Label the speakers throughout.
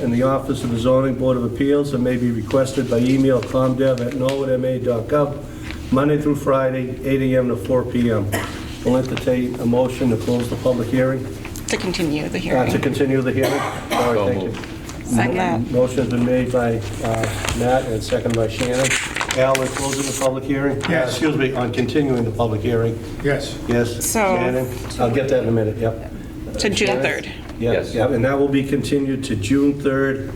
Speaker 1: in the Office of the Zoning Board of Appeals and may be requested by email comdev@norwoodma.gov, Monday through Friday, 8 AM to 4 PM. We'll entertain a motion to close the public hearing,
Speaker 2: To continue the
Speaker 1: uh,
Speaker 2: hearing.
Speaker 1: to continue the hearing. All right, thank you.
Speaker 2: Second.
Speaker 1: Motion's been made by uh, Matt and seconded by Shannon. Al, we're closing the public hearing? Uh,
Speaker 3: Yes.
Speaker 1: Excuse me, on continuing the public hearing.
Speaker 3: Yes.
Speaker 1: Yes.
Speaker 2: So-
Speaker 1: Shannon? I'll get that in a minute, yep.
Speaker 2: To June
Speaker 1: Shannon?
Speaker 2: 3rd.
Speaker 1: Yes,
Speaker 4: Yes.
Speaker 1: yep, and that will be continued to June 3rd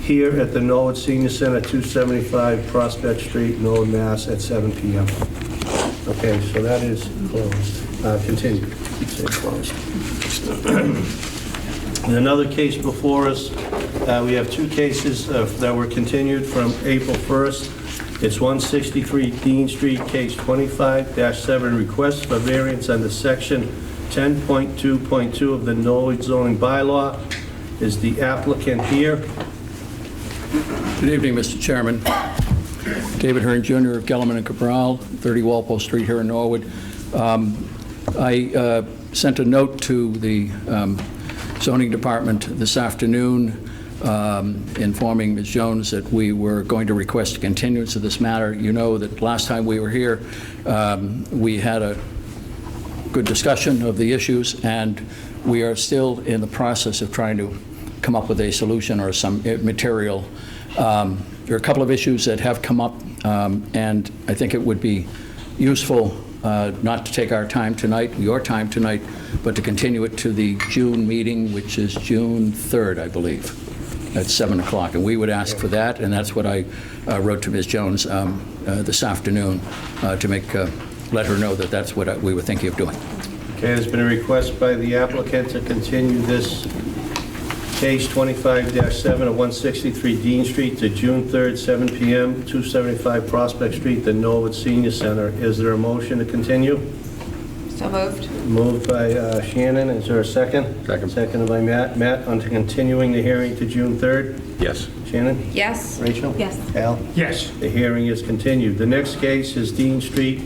Speaker 1: here at the Norwood Senior Center, 275 Prospect Street, Norwood, Mass. at 7 PM. Okay, so that is closed, uh, continued, say closed. And Another case before us, uh, we have two cases uh, that were continued from April 1st. It's 163 Dean Street, case 25-7, request for variance under section 10.2.2 of the Norwich zoning bylaw. Is the applicant here?
Speaker 5: Good evening, Mr. Chairman. David Hearn Jr. of Gelman and Cabral, 30 Walpole Street here in Norwood. Um, I uh, sent a note to the um, zoning department this afternoon um, informing Ms. Jones that we were going to request a continuance of this matter. You know that last time we were here, um, we had a good discussion of the issues, and we are still in the process of trying to come up with a solution or some eh, material. Um, There are a couple of issues that have come up, um, and I think it would be useful uh, not to take our time tonight, your time tonight, but to continue it to the June meeting, which is June 3rd, I believe, at 7 o'clock. And we would ask for that, and that's what I uh, wrote to Ms. Jones um, uh, this afternoon uh, to make, uh, let her know that that's what I- we were thinking of doing.
Speaker 1: Okay, there's been a request by the applicant to continue this case 25-7 of 163 Dean Street to June 3rd, 7 PM, 275 Prospect Street, the Norwood Senior Center. Is there a motion to continue?
Speaker 6: So moved.
Speaker 1: Moved by uh, Shannon, is there a second?
Speaker 4: Second.
Speaker 1: Seconded by Matt. Matt, on to continuing the hearing to June 3rd.
Speaker 4: Yes.
Speaker 1: Shannon?
Speaker 6: Yes.
Speaker 1: Rachel?
Speaker 6: Yes.
Speaker 1: Al?
Speaker 3: Yes.
Speaker 1: The hearing is continued. The next case is Dean Street,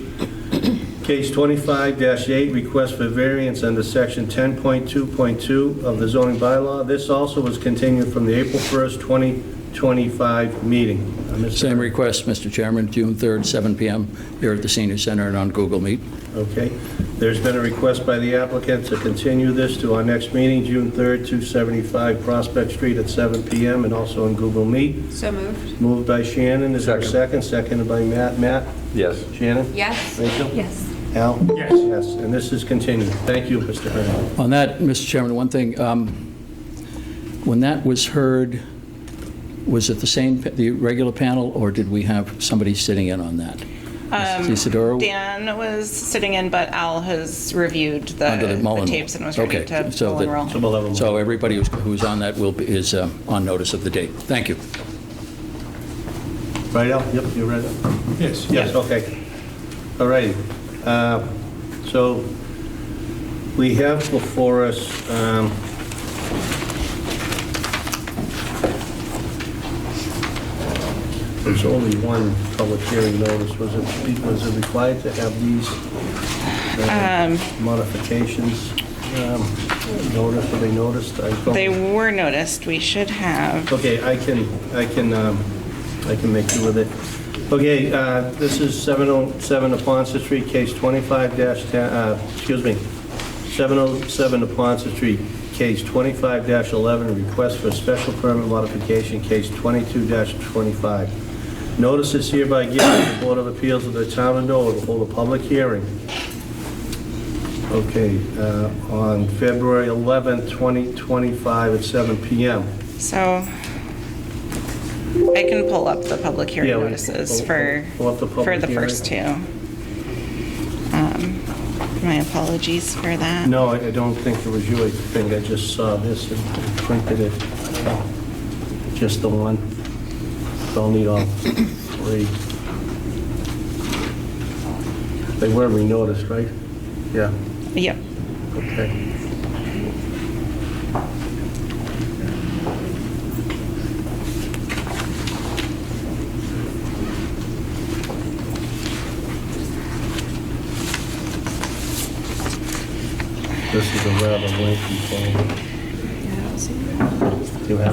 Speaker 1: case 25-8, request for variance under section 10.2.2 of the zoning bylaw. This also was continued from the April 1st, 2025 meeting. Uh, Mr.
Speaker 5: Same request, Mr. Chairman, June 3rd, 7 PM, here at the Senior Center and on Google Meet.
Speaker 1: Okay. There's been a request by the applicant to continue this to our next meeting, June 3rd, 275 Prospect Street at 7 PM, and also on Google Meet.
Speaker 6: So moved.
Speaker 1: Moved by Shannon, is there a second? Seconded by Matt. Matt?
Speaker 4: Yes.
Speaker 1: Shannon?
Speaker 6: Yes.
Speaker 1: Rachel?
Speaker 6: Yes.
Speaker 1: Al?
Speaker 3: Yes.
Speaker 1: Yes, and this is continued. Thank you, Mr. Hearn.
Speaker 5: On that, Mr. Chairman, one thing, um, when that was heard, was it the same, pa- the regular panel, or did we have somebody sitting in on that? Mrs. Isidoro?
Speaker 2: Dan was sitting in, but Al has reviewed the
Speaker 5: Under the
Speaker 2: the
Speaker 5: Mullen.
Speaker 2: tapes and was ready
Speaker 5: Okay,
Speaker 2: to
Speaker 5: so
Speaker 2: pull and
Speaker 5: that-
Speaker 2: roll.
Speaker 1: So we'll have a-
Speaker 5: So everybody who's- who's on that will, be- is um, on notice of the date. Thank you.
Speaker 1: Right, Al? Yep, you're right.
Speaker 3: Yes.
Speaker 1: Yes, okay. All righty. Uh, So we have before us um, there's only one public hearing notice. Was it, was it required to have these uh, modifications um, noticed, were they noticed? I don't-
Speaker 2: They were noticed. We should have,
Speaker 1: Okay, I can, I can, um, I can make do with it. Okay, uh, this is 707 Naponton Street, case 25-10, uh, excuse me, 707 Naponton Street, case 25-11, request for special permit modification, case 22-25. Notice is hereby given to the Board of Appeals of the Town of Norwood to hold a public hearing Okay, uh, on February 11th, 2025 at 7 PM.
Speaker 2: so I can pull up the public
Speaker 1: Yeah,
Speaker 2: hearing
Speaker 1: we-
Speaker 2: notices
Speaker 1: pull-
Speaker 2: for,
Speaker 1: pull up the public
Speaker 2: for the first two. Um, My apologies for that.
Speaker 1: No, I I don't think it was you, I think I just saw this and printed it. Just the one. Don't need all three. They were re-noticed, right? Yeah,
Speaker 2: Yep.
Speaker 1: okay. This is a rather lengthy thing. Do you have